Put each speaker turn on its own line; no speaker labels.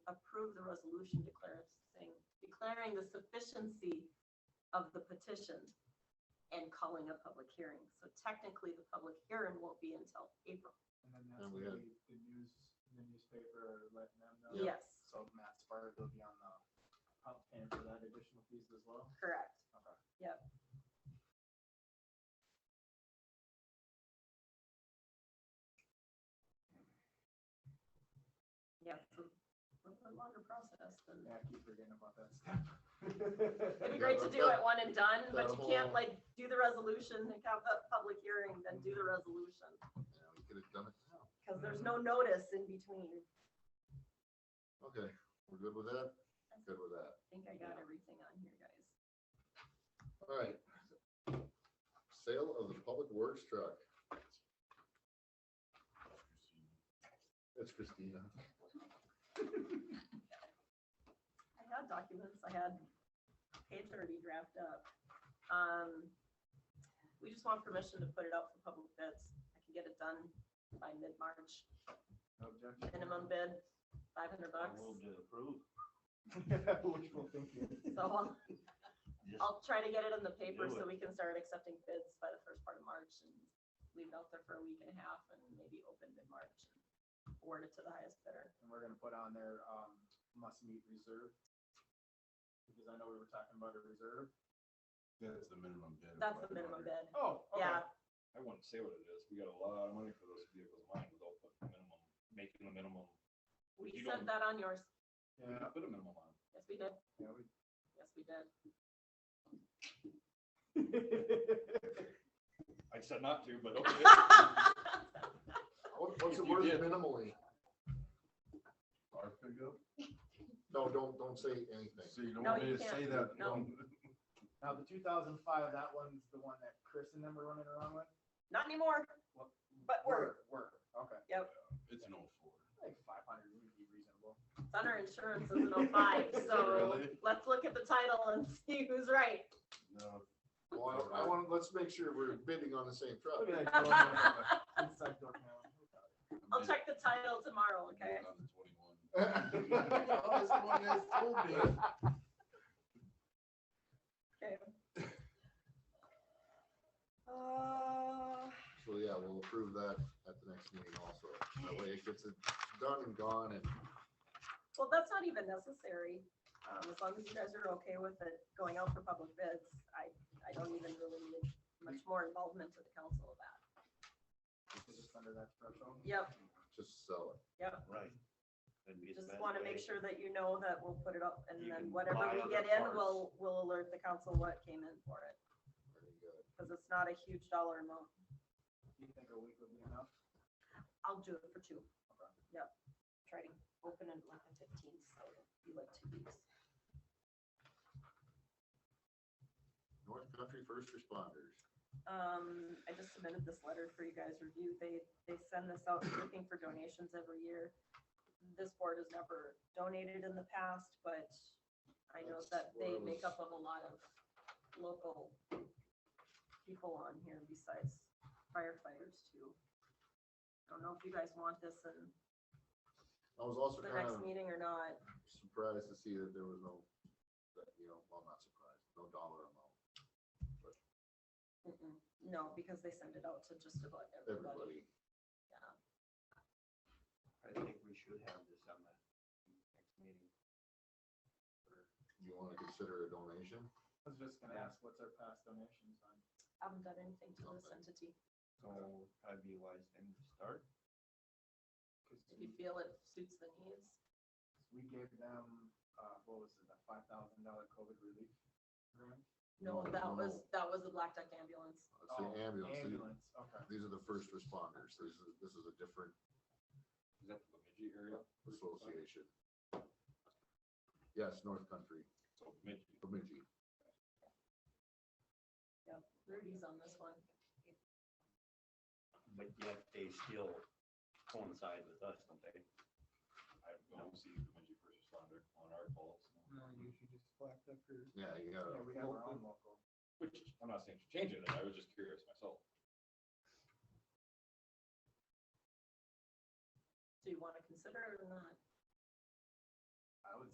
approve the resolution declaring, declaring the sufficiency of the petition and calling a public hearing. So technically, the public hearing won't be until April.
And then that's
Mhm.
the, the news, the newspaper letting them know.
Yes,
So Matt Sparta will be on the, up paying for that additional fees as well.
correct.
Okay.
Yeah, it's a little bit longer process than.
Yeah, I keep forgetting about that step.
It'd be
Yeah,
great to
but
do
that-
it one and done, but
that
you can't like
whole-
do the resolution, then have the public hearing, then do the resolution.
Yeah, we could have done it now.
Cause there's no notice in between.
Okay, we're good with that? Good with
I
that.
think I got everything on here, guys.
All right. Sale of the public works truck. That's Christina.
I had documents, I had page already draft up. Um, we just want permission to put it out for public bids. I can get it done by mid-March,
No objection.
minimum bid, five hundred bucks.
to approve.
Wishful thinking.
So I'll,
Just
I'll try to get it in the paper
Do
so
it.
we can start accepting bids by the first part of March and leave it out there for a week and a half and maybe open mid-March. and Award it to the highest bidder.
And we're gonna put on there, um, must meet reserve. Because I know we were talking about a reserve.
That's the minimum bid. of
That's the
500.
minimum bid.
Oh, okay.
Yeah,
I wouldn't say what it is. We got a lot of money for those vehicles mine without putting the minimum, making the minimum.
we
You
sent
don't-
that on yours.
We
Yeah,
not put a minimum on. it.
Yes, we did.
yeah, we-
Yes, we did.
I said not to, but okay.
What- What's the
If you
word
did-
minimally?
Our pickup?
No, don't, don't say anything.
So you don't
No,
want
you
me to say
can't.
that?
No.
Now, the two thousand five, that one's the one that Chris and them were running around with?
Not anymore,
What-
but we're,
Work, okay.
It's an oh old Ford.
I think five hundred would be reasonable.
it's on our insurance is an oh five, so
Really?
let's look at the title and see who's right.
No.
Well, I want, let's make sure we're bidding on the same truck.
Look at that door now. Inside door now.
I'll check the title tomorrow, okay?
On the twenty-one.
This one is so big.
Okay. Uh,
So, yeah, we'll approve that at the next meeting also. That way it gets it done and gone and
well, that's not even necessary, um, as long as you guys are okay with it going out for public bids, I, I don't even really need much more involvement to the council of that.
It's just under that threshold.
Yep,
just sell it.
Right. That'd be the
Just
best
want to
way.
make sure that you know that we'll put it up and
You
then
can
whatever we
buy other
get in,
parts.
we'll, we'll alert the council what came in for it.
Very good.
Because it's not a huge dollar amount.
Do you think a week would be enough?
I'll do it for two. Yep. Try to open it like the fifteenth, so it'll be like two weeks.
North Country First Responders.
Um, I just submitted this letter for you guys review. They, they send this out looking for donations every year. This board has never donated in the past, but I know that
That's
they
where I
make
was-
up of a lot of local people on here besides firefighters too. I don't know if you guys want this in
I was also
the
kind
next
of
meeting or not.
surprised to see that there was no, that, you know, well, not surprised, no dollar amount.
Mm-mm. No, because they send it out to just about everybody.
Everybody,
Yeah.
I think we should have this on the next meeting.
you want to consider a donation?
I was just gonna ask, what's our past donations on?
I Haven't done anything to this entity.
So I'd be wise then to start.
Cause
If
we,
you feel it suits the needs.
we gave them, uh, what was it, a five thousand dollar COVID relief grant?
No,
No,
that
no.
was, that was the Black Duck ambulance.
Let's say
Oh,
ambulance. These-
Ambulance, okay.
These are the first responders. This is, this is a different
Is that the Bemidji area?
association. Yes, North Country,
So Bemidji.
Bemidji.
Yeah, Rudy's on this one.
But yet they still coincide with us, don't they?
I don't see Bemidji first responder on our calls.
No, you should just black up your.
Yeah, you
Yeah,
gotta,
we have our own local.
Which, I'm not saying to change it, I was just curious myself.